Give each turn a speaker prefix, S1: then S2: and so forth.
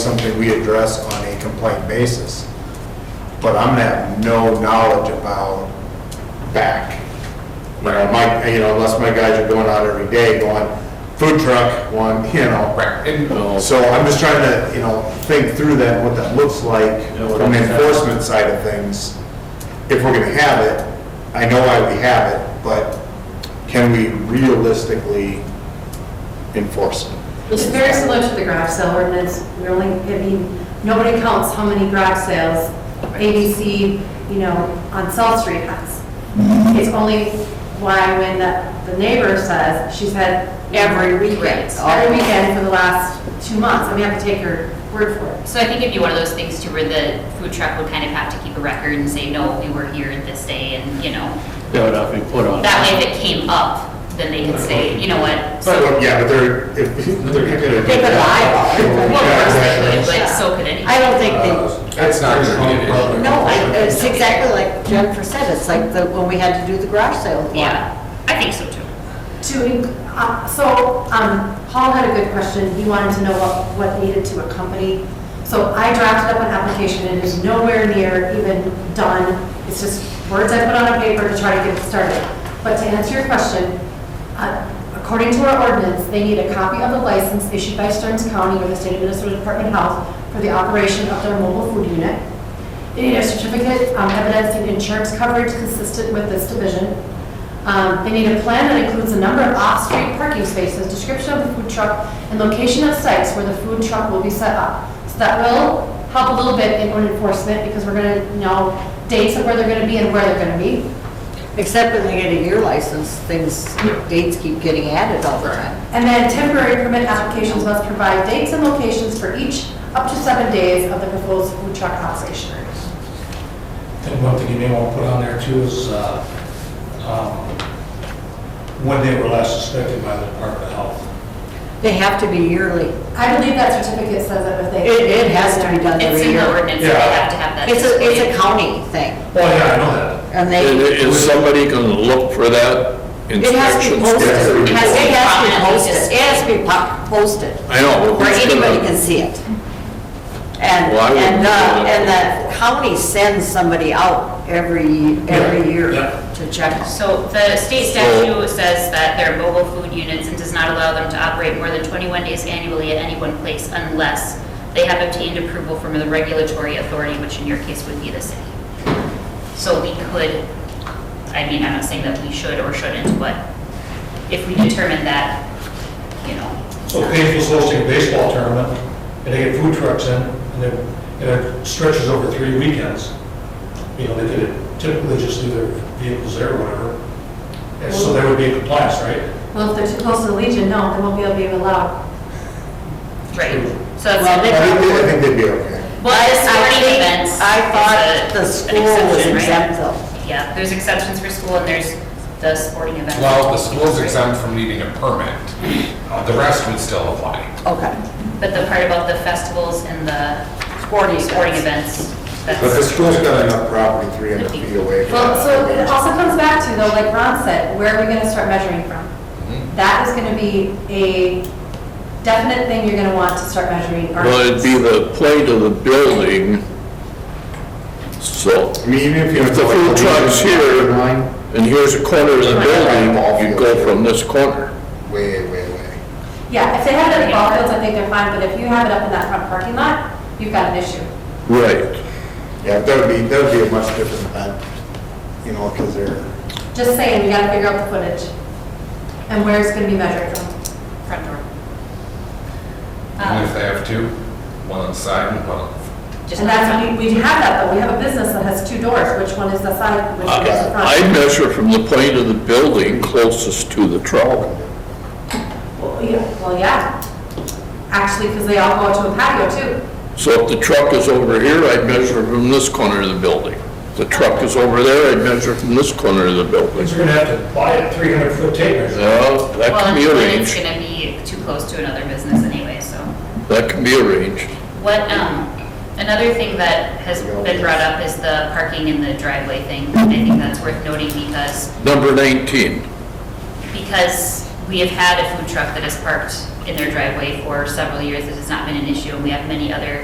S1: something we address on a complaint basis. But I'm gonna have no knowledge about back. You know, my, you know, unless my guys are going out every day going, food truck, one, you know.
S2: Right, and,
S1: So I'm just trying to, you know, think through that, what that looks like
S2: Yeah, what
S1: from the
S2: it's-
S1: enforcement side of things. If we're gonna have it, I know why we have it, but can we realistically enforce it?
S3: It's very similar to the garage sale ordinance. We only, I mean, nobody counts how many garage sales ABC, you know, on South Street has. It's only why when the, the neighbor says, she's had.
S4: Every weekend.
S3: Every weekend for the last two months, and we have to take her word for it.
S4: So I think it'd be one of those things too where the food truck would kind of have to keep a record and say, no, we were here this day and, you know,
S5: That would have to be put on.
S4: that way if it came up, then they could say, you know what? so-
S1: But, yeah, but they're, if, they're gonna. do
S6: They could
S1: that.
S4: Well, of course they would, but so could
S6: I
S4: anyone.
S6: don't think
S2: Uh,
S6: they,
S2: that's not gonna be an issue.
S6: no, I- it's exactly like Jennifer said, it's like the, when we had to do the garage sale. law.
S4: Yeah, I think so too.
S3: To, in- uh, so, um, Paul had a good question, he wanted to know what, what needed to accompany. So I drafted up an application, it is nowhere near even done, it's just words I put on a paper to try to get it started. But to answer your question, uh, according to our ordinance, they need a copy of the license issued by Stearns County or the State of Minnesota Department of Health for the operation of their mobile food unit. They need a certificate um, evidencing insurance coverage consistent with this division. Um, They need a plan that includes the number of off-street parking spaces, description of the food truck, and location of sites where the food truck will be set up. So that will help a little bit in enforcement, because we're gonna know dates of where they're gonna be and where they're gonna be.
S6: Except when they get a year license, things, dates keep getting added all the time.
S3: And then temporary permit applications must provide dates and locations for each up to seven days of the proposed food truck operation.
S7: And one thing you may want to put on there too is, uh, um, when they were last inspected by the Department of Health.
S6: They have to be yearly.
S3: I believe that certificate says that if they.
S6: It, it has to be done
S4: It's
S6: every
S4: in the
S6: year.
S4: ordinance, so they have to have that.
S6: It's a, it's a
S4: displayed.
S6: county thing,
S7: Well, Oh, yeah, I know that.
S6: and
S2: It-
S6: they,
S2: it- Is somebody gonna look for that
S6: it has to be
S2: inspection?
S6: posted,
S1: Yes,
S6: it has,
S4: Prominently
S6: it has to be posted, it has to be po- posted.
S2: I know, but
S6: where
S2: who's
S6: anybody
S2: gonna-
S6: can see it. And,
S2: Well, I wouldn't
S6: and, the-
S2: do that.
S6: and the county sends somebody out every, every year
S7: yeah.
S6: to check. them.
S4: So the state statute says that they're mobile food units and does not allow them to operate more than 21 days annually at any one place unless they have obtained approval from the regulatory authority, which in your case would be the city. So we could, I mean, I'm not saying that we should or shouldn't, but if we determine that, you know,
S6: Oh,
S7: So Paige's hosting a baseball tournament, and they get food trucks in, and it, and it stretches over three weekends. You know, they could typically just leave their vehicles there or whatever. And so they would be in compliance, right?
S3: Well, if they're too close to the Legion, no, they won't be able to be allowed.
S4: right? So that's.
S6: Well,
S1: I think, they- I think they'd be okay.
S4: Well, the
S6: I
S4: sporting
S6: think-
S4: events.
S6: I
S4: is
S6: thought
S4: a- an
S6: the school was
S4: exception, right?
S6: exempt though.
S4: Yeah, there's exceptions for school and there's the sporting events.
S2: Well, the school's exempt from needing a permit, Uh, the rest would still apply.
S6: Okay.
S4: But the part about the festivals and the
S6: Sporting
S4: sporting
S6: events.
S4: events,
S1: But the
S4: that's,
S1: school's got enough property three hundred feet away. from
S3: Well,
S1: that.
S3: so it also comes back to though, like Ron said, where are we gonna start measuring from? That is gonna be a definite thing you're gonna want to start measuring. or-
S8: Well, it'd be the plate of the building, so,
S1: I mean, even if you.
S8: If the
S1: like,
S8: food truck's here-
S1: line,
S8: and here's a corner of the building, you go from this corner.
S1: Way, way, way.
S3: Yeah, if they have it at the ball fields, I think they're fine, but if you have it up in that front parking lot, you've got an issue.
S8: Right.
S1: Yeah, that would be, that would be a much different event, you know, because they're,
S3: Just saying, we gotta figure out the footage and where it's gonna be measured from.
S4: front door.
S2: And if
S4: Um,
S2: they have two, one on the side and one on
S4: just
S3: And that's, we, we have that though, we have a business that has two doors, which one is the side, which one is the front.
S8: I I measure from the plate of the building closest to the trolley.
S3: Well, yeah, well, yeah. Actually, because they all go out to a patio too.
S8: So if the truck is over here, I'd measure from this corner of the building. If the truck is over there, I'd measure from this corner of the building.
S7: Because you're gonna have to buy a three hundred foot tape measure.
S8: Well, that
S4: Well,
S8: can
S4: and
S8: be
S4: it's
S8: arranged,
S4: gonna be too close to another business anyway, so.
S8: that can be arranged.
S4: What, um, another thing that has been brought up is the parking in the driveway thing. I think that's worth noting because
S8: Number 19,
S4: because we have had a food truck that has parked in their driveway for several years. It has not been an issue, and we have many other